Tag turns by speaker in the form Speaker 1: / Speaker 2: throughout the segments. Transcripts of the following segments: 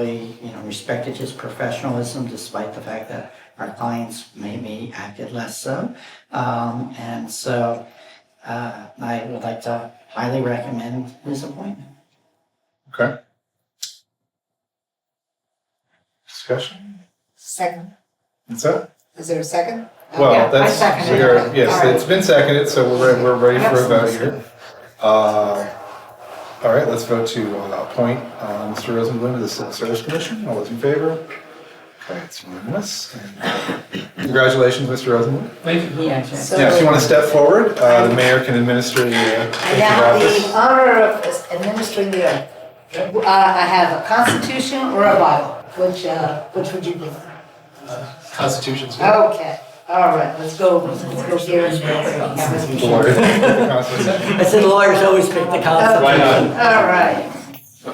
Speaker 1: really, you know, respected his professionalism despite the fact that our clients maybe acted less so. Um, and so, uh, I would like to highly recommend his appointment.
Speaker 2: Okay. Discussion?
Speaker 3: Second.
Speaker 2: That's it?
Speaker 3: Is there a second?
Speaker 1: yeah, I
Speaker 2: Well, that's,
Speaker 1: seconded
Speaker 2: we are,
Speaker 3: it.
Speaker 2: yes,
Speaker 3: Alright.
Speaker 2: it's been seconded, so we're, re- we're ready for a vote
Speaker 1: Absolutely.
Speaker 2: here. Uh, All right, let's vote to uh, appoint uh, Mr. Rosenblum to the Civil Service Commission. All those in favor? Okay, it's unanimous. And Congratulations, Mr. Rosenblum.
Speaker 1: Yeah,
Speaker 3: So-
Speaker 2: Yeah, if you want to step forward, uh, the mayor can administer the uh,
Speaker 3: I
Speaker 2: oath
Speaker 3: have the
Speaker 2: of office.
Speaker 3: honor of administering the oath. Uh, I have a constitution or a Bible, which, uh, which would you prefer?
Speaker 4: Constitution's good.
Speaker 3: Okay, all right, let's go, let's go here and there. That must be-
Speaker 2: The lawyer. The constitution.
Speaker 1: I said lawyers always pick the
Speaker 3: Okay,
Speaker 4: Why not?
Speaker 3: All right.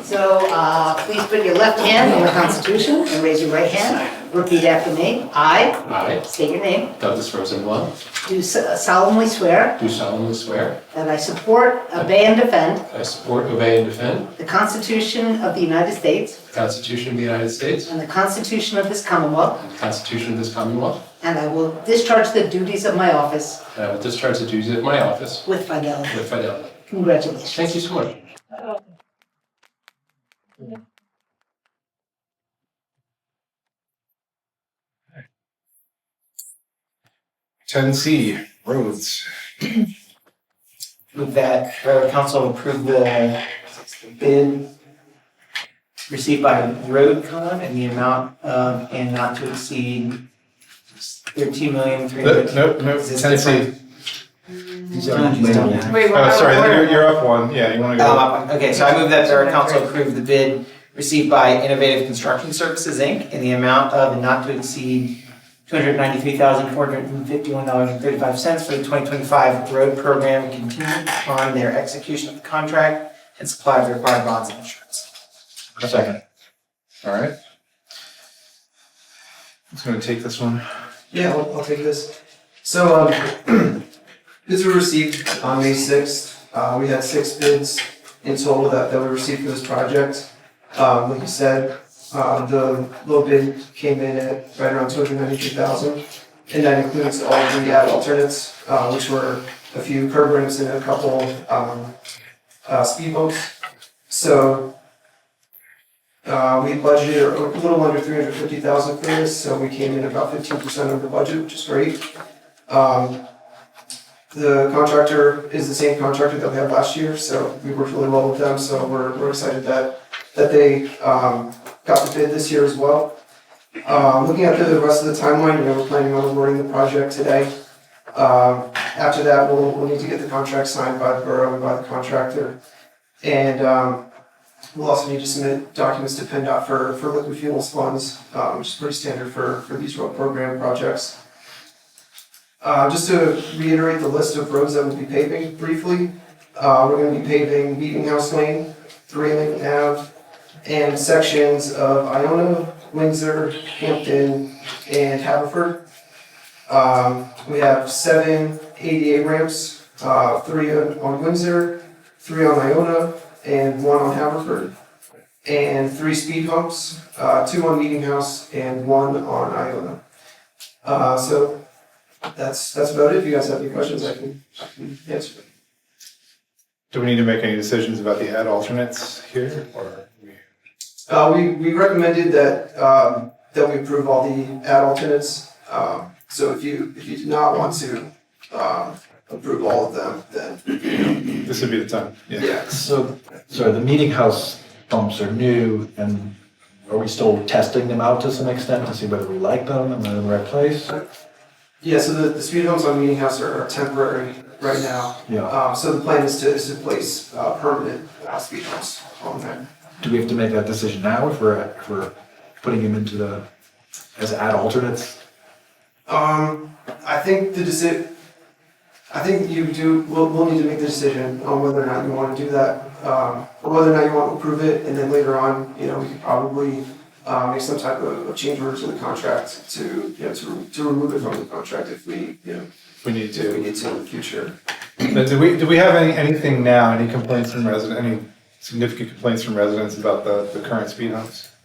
Speaker 3: So, uh, please put your left hand on the constitution and raise your right hand. Repeat after me. I,
Speaker 4: I,
Speaker 3: state your name,
Speaker 4: Douglas Rosenbluth,
Speaker 3: do uh, solemnly swear
Speaker 4: do solemnly swear
Speaker 3: that I support, obey, and defend
Speaker 4: I support, obey, and defend
Speaker 3: The Constitution of the United States
Speaker 4: the Constitution of the United States
Speaker 3: and the Constitution of this Commonwealth,
Speaker 4: and the Constitution of this Commonwealth,
Speaker 3: and I will discharge the duties of my office
Speaker 4: and I will discharge the duties of my office
Speaker 3: with fidelity.
Speaker 4: with fidelity.
Speaker 3: Congratulations.
Speaker 4: Thank you so much.
Speaker 2: Ten C, roads.
Speaker 5: Move that Borough Council approve the bid received by Roadcon in the amount of, and not to exceed thirteen million three
Speaker 2: Nope,
Speaker 5: hundred.
Speaker 2: nope, nope,
Speaker 5: Is this
Speaker 2: ten C.
Speaker 5: different?
Speaker 3: Wait,
Speaker 2: Oh, sorry,
Speaker 3: wait,
Speaker 2: you're,
Speaker 3: wait.
Speaker 2: you're up one. Yeah, you want to go?
Speaker 5: Um, Okay, so I move that Borough Council approve the bid received by Innovative Construction Services, Inc. in the amount of, and not to exceed two hundred ninety-three thousand four hundred and fifty-one dollars and thirty-five cents for the twenty twenty-five road program contingent upon their execution of the contract and supply of the required bonds and insurance.
Speaker 2: Second. All right. Who's going to take this one?
Speaker 5: Yeah, I'll, I'll take this. So, um, bids were received on May sixth. Uh, we had six bids in total that, that we received for this project. Um, like you said, uh, the low bid came in at right around two hundred ninety-two thousand. And that includes all of the added alternates, uh, which were a few curb ramps and a couple, um, uh, speed bumps. So, uh, we budgeted a little under three hundred fifty thousand for this, so we came in about fifteen percent under budget, which is great. Um, the contractor is the same contractor that we had last year, so we worked really well with them, so we're, we're excited that, that they, um, got the bid this year as well. Uh, looking at the rest of the timeline, you know, we're planning on awarding the project today. Um after that, we'll, we'll need to get the contract signed by the borough and by the contractor. And, um, We'll also need to submit documents to PennDOT for, for liquid fuels funds, um, which is pretty standard for, for these road program projects. Uh, just to reiterate the list of roads that we'll be paving briefly, uh, we're gonna be paving Meeting House Lane, Three Lincoln Ave, and sections of Iona, Windsor, Hampton, and Haverford. Um, we have seven ADA ramps, uh, three on on Windsor, three on Iona, and one on Haverford, and three speed bumps, uh, two on Meeting House and one on Iona. Uh, so that's, that's about it. If you guys have any questions, I can, I can answer.
Speaker 2: Do we need to make any decisions about the ad alternates here, or? we-
Speaker 5: Uh, we, we recommended that, um, that we approve all the ad alternates. Um, so if you, if you do not want to, um, approve all of them, then,
Speaker 2: This would be the time, yeah.
Speaker 5: yeah.
Speaker 6: So, so the meeting house pumps are new and are we still testing them out to some extent to see whether we like them and they're in the right place?
Speaker 5: Yeah, so the, the speed bumps on Meeting House are are temporary right now.
Speaker 6: Yeah.
Speaker 5: Um, so the plan is to, is to place, uh, permanent uh, speed bumps on there.
Speaker 6: Do we have to make that decision now if we're, if we're putting them into the, as ad alternates?
Speaker 5: Um, I think the deci, I think you do, we'll, we'll need to make the decision on whether or not you wanna do that. Um, or whether or not you wanna approve it, and then later on, you know, we could probably, uh, make some type of, of change order to the contract to, you know, to, to remove it from the contract if we, you know,
Speaker 2: If We need
Speaker 5: if we
Speaker 2: to.
Speaker 5: need to in the future.
Speaker 2: Now, Do we, do we have any, anything now, any complaints from residents, any significant complaints from residents about the, the current speed humps?